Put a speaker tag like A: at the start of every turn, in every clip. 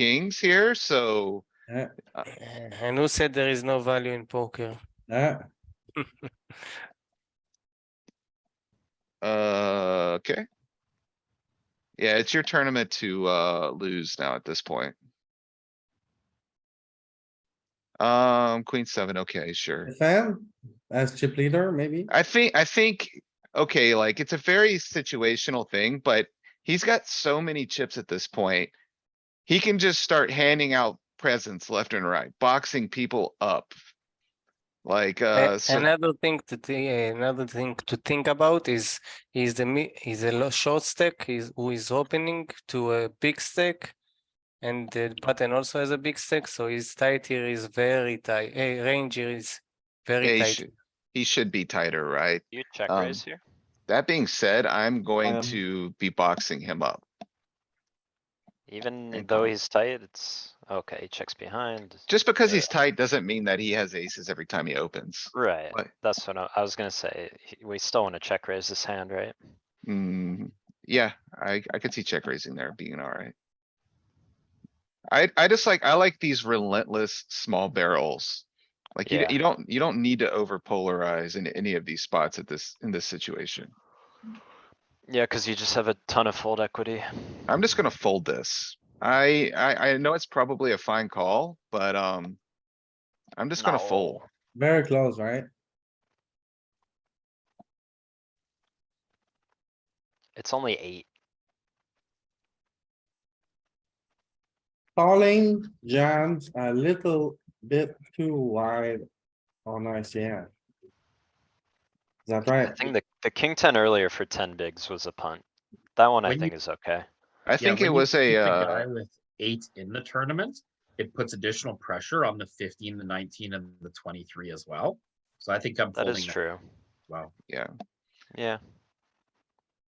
A: kings here, so
B: Uh, And who said there is no value in poker?
C: Yeah,
A: Uh, okay. Yeah, it's your tournament to, uh, lose now at this point. Um, queen seven, okay, sure.
C: defend as chip leader, maybe.
A: I think, I think, okay, like, it's a very situational thing, but he's got so many chips at this point. He can just start handing out presents left and right, boxing people up. Like, uh,
B: A-
A: so-
B: Another thing to thi- another thing to think about is is the mi- is a lo- short stack is who is opening to a big stack. And the button also has a big stack, so his tight here is very tight, eh, range here is
A: yeah,
B: very
A: he
B: tight.
A: should, he should be tighter, right?
D: You check
A: Um,
D: raise here?
A: That being said, I'm going
D: Um,
A: to be boxing him up.
D: Even
A: and
D: though
A: call.
D: he's tight, it's, okay, he checks behind.
A: Just because
D: Yeah.
A: he's tight doesn't mean that he has aces every time he opens.
D: Right,
A: What?
D: that's what I, I was gonna say. he- We still wanna check raise this hand, right?
A: Mm, yeah, I, I could see check raising there being alright. I, I just like, I like these relentless small barrels. Like you,
D: Yeah.
A: you don't, you don't need to over polarize in any of these spots at this, in this situation.
D: Yeah, cuz you just have a ton of fold equity.
A: I'm just gonna fold this. I, I, I know it's probably a fine call, but, um, I'm just gonna
D: No.
A: fold.
C: Very close, right?
D: It's only eight.
C: Calling jams a little bit too wide on ICM. Is that
D: I
C: right?
D: think the, the king ten earlier for ten bigs was a punt. That one I
E: When you-
D: think is okay.
A: I think it was a, uh,
E: With eight in the tournament, it puts additional pressure on the fifteen, the nineteen and the twenty-three as well. So I think I'm
D: That
E: folding
D: is
E: as
D: true.
E: Well,
D: Yeah,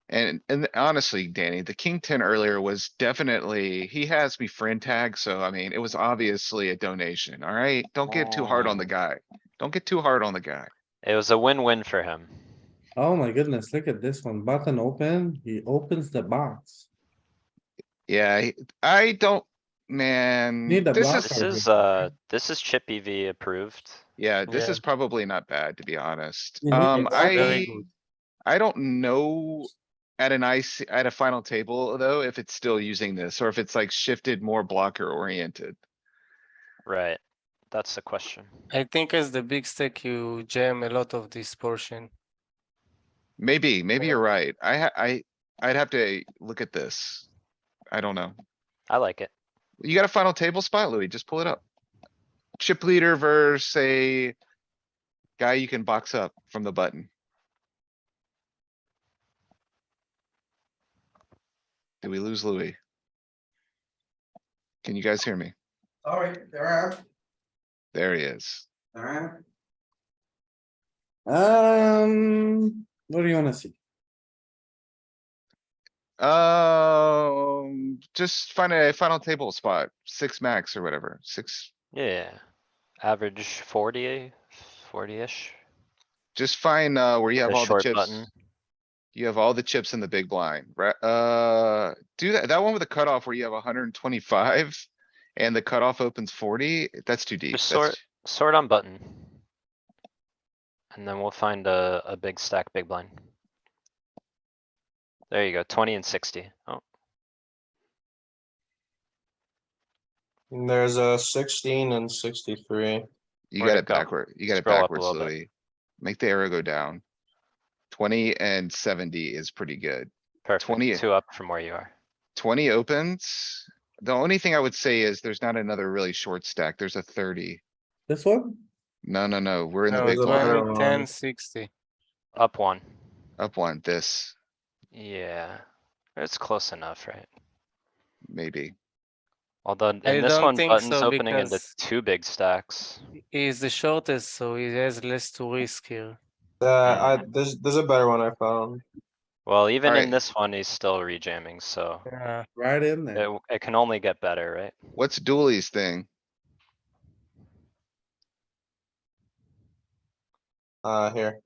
A: And, and honestly, Danny, the king ten earlier was definitely, he has me friend tag, so I mean, it was obviously a donation, alright? Don't get too hard on the
D: Oh.
A: guy. Don't get too hard on the guy.
D: it was a win-win for him.
C: Oh my goodness, look at this one. Button open, he opens the box.
A: Yeah, I- I don't, man,
C: Need a
A: this
C: blocker.
A: is,
D: This
C: Okay.
D: is, uh, this is chip EV approved.
A: yeah, this
B: Yeah.
A: is probably not bad, to be honest.
C: You need a
A: Um,
C: blocker.
A: I,
B: Very good.
A: I don't know at an IC, at a final table though, if it's still using this or if it's like shifted more blocker oriented.
D: Right, that's the question.
B: I think as the big stack, you jam a lot of this portion.
A: Maybe, maybe you're right. I ha- I, I'd have to look at this. I don't know.
D: I like it.
A: You got a final table spot, Louis? Just pull it up. Chip leader versus a guy you can box up from the button. Did we lose Louis? Can you guys hear me?
C: Alright, there are,
A: There he is.
C: there are. Um, what do you wanna see?
A: Um, just find a final table spot, six max or whatever, six,
D: Yeah, average 40 40-ish.
A: Just find, uh, where you have
D: The
A: all the
D: short
A: chips.
D: button.
A: You have all the chips in the big blind, right? Uh, do that, that one with the cutoff where you have hundred and twenty-five. And the cutoff opens forty, that's too deep.
D: Just
A: that's-
D: Sort on button. And then we'll find a, a big stack, big blind. There you go, twenty and sixty. Oh,
F: There's a sixteen and sixty-three.
A: You
D: where'd
A: got
D: it
A: it
D: go?
A: backward, you got it
D: Scroll up a
A: backwards,
D: little bit.
A: Louis. Make the arrow go down. Twenty and seventy is pretty good. 20.
D: perfect, two up from where you are.
A: Twenty opens. The only thing I would say is there's not another really short stack. There's a thirty.
C: This one?
A: No, no, no, we're in the
F: No,
A: big
F: the
A: blind.
F: other
B: Twenty,
F: one.
B: ten, sixty.
D: Up one,
A: Up one, this,
D: yeah, it's close enough, right?
A: maybe.
D: Although
B: I
D: in this
B: don't
D: one,
B: think
D: button's
B: so,
D: opening into
B: because-
D: two big stacks.
B: He is the shortest, so he has less to risk here.
F: Uh, I, there's, there's a better one I found.
D: Well, even
A: Alright.
D: in this one, he's still rejamming, so
B: Yeah.
C: Right in there.
D: it, it can only get better, right?
A: What's Dooley's thing?
F: Uh, here.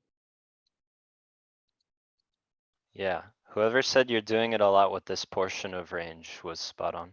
D: Yeah, whoever said you're doing it a lot with this portion of range was spot on.